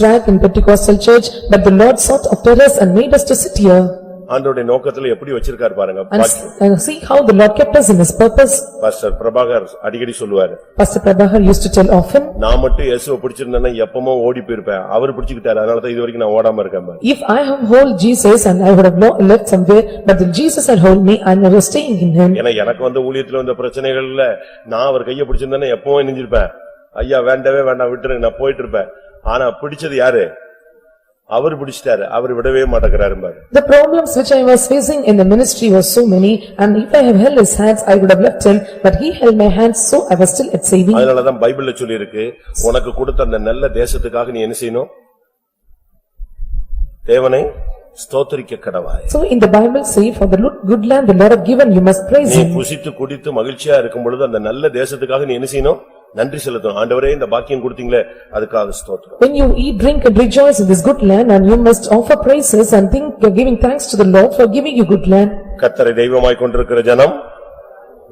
dragged in Pentecostal church, but the Lord sought after us and made us to sit here. ஆண்டவருடைய நோக்கத்துல எப்படி வச்சிருக்காரு பாருங்க And வாக்கியம். and see how the Lord kept us in his purpose. Pastor Prabhakar அடிக்கடி சொல்லுவாரு Pastor Prabhakar used to tell often, நான் மட்டும் இயேசுவை பிடிச்சிருந்தேன்னா எப்பமோ ஓடி போயிருப்பேன் அவர் பிடிச்சுக்கிட்டாரு அதனாலதான் இது வரைக்கும் நான் ஓடாம இருக்கேன் பாரு. "If I have hold Jesus and I would have not left somewhere, but then Jesus had hold me and I was staying in him." ஏன்னா எனக்கு வந்த ஊழியத்துல வந்த பிரச்சனைகள்ல நான் அவர் கையை பிடிச்சிருந்தேன்னா எப்பவும் இணைஞ்சிருப்பேன் ஐயா வேண்டவே வேண்டாம் விட்டுரு நான் போயிட்டு இருப்பேன் ஆனா பிடிச்சது யாரு அவர் பிடிச்சிட்டாரு அவர் விடவே மாட்டேங்கிறாரு பாரு. The problems which I was facing in the ministry were so many, and if I have held his hands, I would have left him, but he held my hands, so I was still at saving. அதனாலதான் பைபிள்ல சொல்லியிருக்கு உனக்கு கொடுத்த அந்த நல்ல தேசத்துக்காக நீ என்ன செய்யணும் தேவனை ஸ்தோத்திரிக்க கடவாய் So in the Bible say, "For the lo- good land the Lord have given, you must praise நீ him." புசித்து குடித்து மகிழ்ச்சியா இருக்கும் பொழுது அந்த நல்ல தேசத்துக்காக நீ என்ன செய்யணும் நன்றி செலுத்தணும் ஆண்டவரே இந்த பாக்கியம் கொடுத்தீங்களே அதுக்காக ஸ்தோத்திரம் When you eat, drink and rejoice in this good land, and you must offer praises and think, uh, giving thanks to the Lord for giving you good land. கத்தரை தெய்வமாய் கொண்டிருக்கிற ஜனம்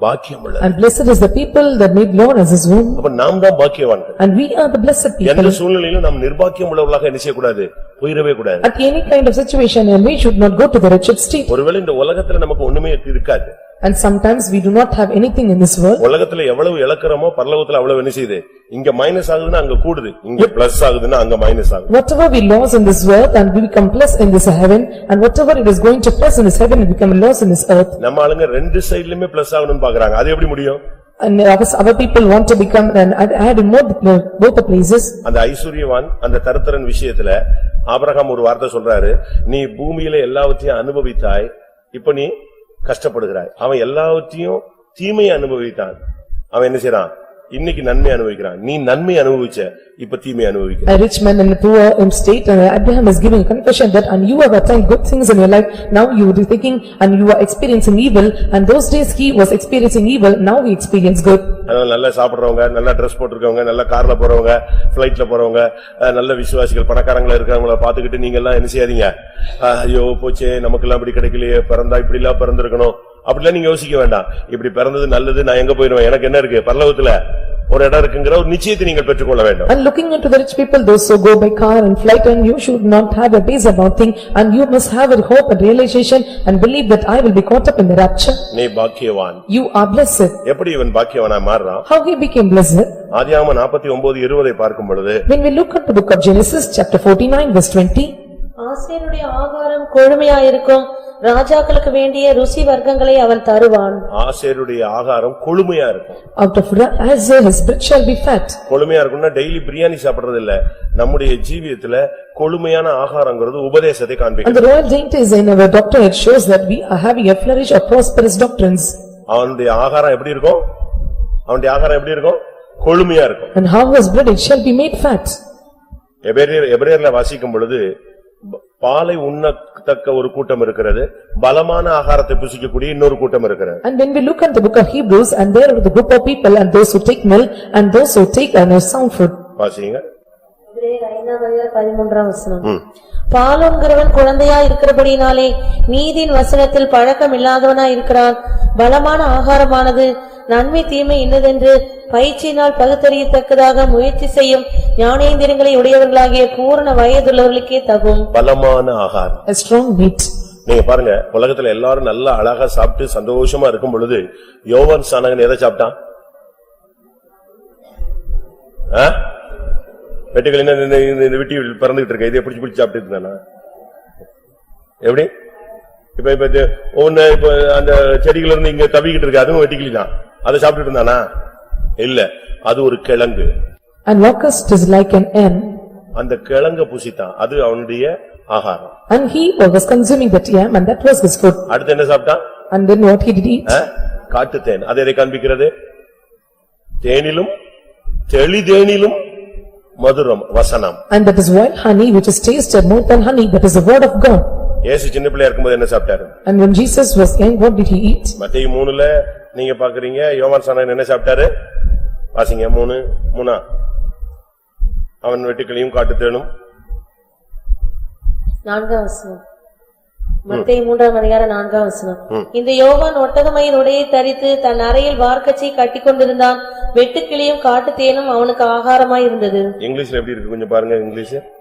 பாக்கியம் உள்ளது And blessed is the people that made Lord as his womb, அப்ப நாம் தான் பாக்கியவான்கள் and we are the blessed எந்த people. சூழ்நிலையிலும் நாம் நிர்பாக்கியம் உள்ளவர்களாக என்ன செய்யக்கூடாது போயிடவே கூடாது At any kind of situation, and we should not go to the wretched state, ஒருவேளை இந்த உலகத்துல நமக்கு ஒண்ணுமே இருக்காது and sometimes we do not have anything in this world. உலகத்துல எவ்வளவு இழக்கிறோமோ பரலோகத்துல அவ்வளவு என்ன செய்யுது இங்க மைனஸ் ஆகுதுன்னா அங்க கூடுது இங்க பிளஸ் ஆகுதுன்னா அங்க மைனஸ் ஆகுது Whatever we lose in this world, and we become plus in this heaven, and whatever it is going to plus in this heaven, we become loss in this earth. நம்ம ஆளுங்க ரெண்டு சைடுலயுமே plus ஆகணும்னு பாக்குறாங்க அது எப்படி முடியும் And ours- our people want to become, and add- add in more, uh, both the places. அந்த ஐஸ்வர்யவான் அந்த தருத்திரன் விஷயத்துல ஆபிரகாம் ஒரு வார்த்தை சொல்றாரு நீ பூமியில எல்லாவற்றையும் அனுபவித்தாய் இப்ப நீ கஷ்டப்படுகிறாய் அவன் எல்லாவற்றையும் தீமையை அனுபவித்தான் அவன் என்ன செய்றான் இன்னைக்கு நன்மை அனுபவிக்கிறான் நீ நன்மை அனுபவிச்ச இப்ப தீமை அனுபவிக்கிற A rich man and a poor in state, and Abraham is giving a confession that, and you have attained good things in your life, now you are thinking, and you are experiencing evil, and those days he was experiencing evil, now he experience good. அதனால நல்லா சாப்பிடுறவங்க நல்லா dress போட்டிருக்கவங்க நல்லா கார்ல போறவங்க பிளைட்ல போறவங்க அஹ், நல்ல விசுவாசிகள் பணக்காரங்களா இருக்கிறவங்கள பாத்துக்கிட்டு நீங்க எல்லாம் என்ன செய்யாதீங்க அஹ், ஐயோ போச்சே நமக்கு எல்லாம் இப்படி கிடைக்கலையே பிறந்தா இப்படி எல்லாம் பிறந்திருக்கணும் அப்படிலாம் நீங்க யோசிக்க வேண்டாம் இப்படி பிறந்தது நல்லது நான் எங்க போயிருவேன் எனக்கு என்ன இருக்கு பரலோகத்துல ஒரு இடம் இருக்குங்கிற ஒரு நிச்சயத்தை நீங்கள் பெற்றுக்கொள்ள வேண்டும் And looking into the rich people, those who go by car and flight, and you should not have a base about thing, and you must have a hope and realization, and believe that I will be caught up in the rapture. நீ பாக்கியவான் You are blessed. எப்படி இவன் பாக்கியவனா மாறுறான் How he became blessed? ஆதியாகம நாற்பத்தி ஒன்பது இருபதை பார்க்கும் பொழுது When we look at the book of Genesis, chapter forty-nine, verse twenty, ஆசேருடைய ஆகாரம் கொழுமையாயிருக்கும் ராஜாக்களுக்கு வேண்டிய ருசி வர்க்கங்களை அவன் தருவான் ஆசேருடைய ஆகாரம் கொழுமையா இருக்கும் out of Ra- Azar his bread shall be fat. கொழுமையா இருக்கும்னா டெய்லி பிரியாணி சாப்பிடுறது இல்ல நம்முடைய ஜீவியத்துல கொழுமையான ஆகாரங்கிறது உபதேசத்தை And காண்பிக்கும் the royal dainties in our doctrine, it shows that we are having a flourish of prosperous doctrines. அவனுடைய ஆகாரம் எப்படி இருக்கும் அவனுடைய ஆகாரம் எப்படி இருக்கும் கொழுமையா இருக்கும் And how was bread, it shall be made fat. எபிரேயர் எபிரேயர்ல வாசிக்கும் பொழுது ப- பாலை உண்ணத்தக்க ஒரு கூட்டம் இருக்கிறது பலமான ஆகாரத்தை புசிக்கக்கூடிய இன்னொரு கூட்டம் இருக்கிறது And when we look at the book of Hebrews, and there are the group of people, and those who take milk, and those who take and are sound food. வாசிங்க எபிரேயர் ஐந்தாம் அதிகாரம் பதிமூன்றாம் வசனம் ம். பாலோன்கிறவன் குழந்தையா இருக்கிறபடினாலே நீதியின் வசனத்தில் பழக்கம் இல்லாதவனா இருக்கிறான் பலமான ஆகாரமானது நன்மை தீமை இன்னதென்று பயிற்சியினால் பகுத்தறியத்தக்கதாக முயற்சி செய்யும் ஞானேந்திரங்களை உடையவர்களாகிய பூரண வயதுள்ளவர்களுக்கே தகும் பலமான ஆகாரம் A strong meat. நீங்க பாருங்க உலகத்துல எல்லாரும் நல்லா அழகா சாப்பிட்டு சந்தோஷமா இருக்கும் பொழுது யோவான் சானகன் எதை சாப்பிட்டான்? ஆ? வெட்டுக்கிளி இந்த- இந்த- இந்த- இந்த விட்டி பறந்துகிட்டு இருக்க, இதை பிடிச்சு பிடிச்சு சாப்பிட்டு இருந்தானா? எப்படி? இப்ப இப்ப இது ஒண்ணு இப்ப அந்த செடிகள் இருந்து இங்க தவிக்கிட்டு இருக்கு, அதுவும் வெட்டுக்கிளி தான். அதை சாப்பிட்டு இருந்தானா? இல்ல, அது ஒரு கிழங்கு. And locust is like an yam, அந்த கிழங்க புசித்தான், அது அவனுடைய ஆகாரம். and he was consuming that yam, and that was his food. அடுத்து என்ன சாப்பிட்டான்? And then what he did eat? காட்டுத்தேன் அது எதை காண்பிக்கிறது தேனிலும் தெளிதேனிலும் மதுரம் வசனம் And that is wild honey which is tasted more than honey, that is the word of God. ஏசு சின்ன பிள்ளையா இருக்கும்போது என்ன சாப்பிட்டாரு And when Jesus was young, what did he eat? மத்தேயு மூணுல நீங்க பாக்குறீங்க யோவான் சாணன் என்ன சாப்பிட்டாரு வாசிங்க மூணு மூணா அவன் வெட்டுக்களையும் காட்டுத்தேனும் நான்காம் வசனம் மத்தேயு மூன்றாம் அதிகாரம் நான்காம் வசனம் இந்த யோவான் ஒட்டகமயின் உடையை தரித்து தன் அறையில் வார்க்கச்சை கட்டிக்கொண்டிருந்தான் வெட்டுக்கிளியும் காட்டுத்தேனும் அவனுக்கு ஆகாரமாய் இருந்தது இங்கிலீஷ்ல எப்படி இருக்கு கொஞ்சம் பாருங்க இங்கிலீஷ்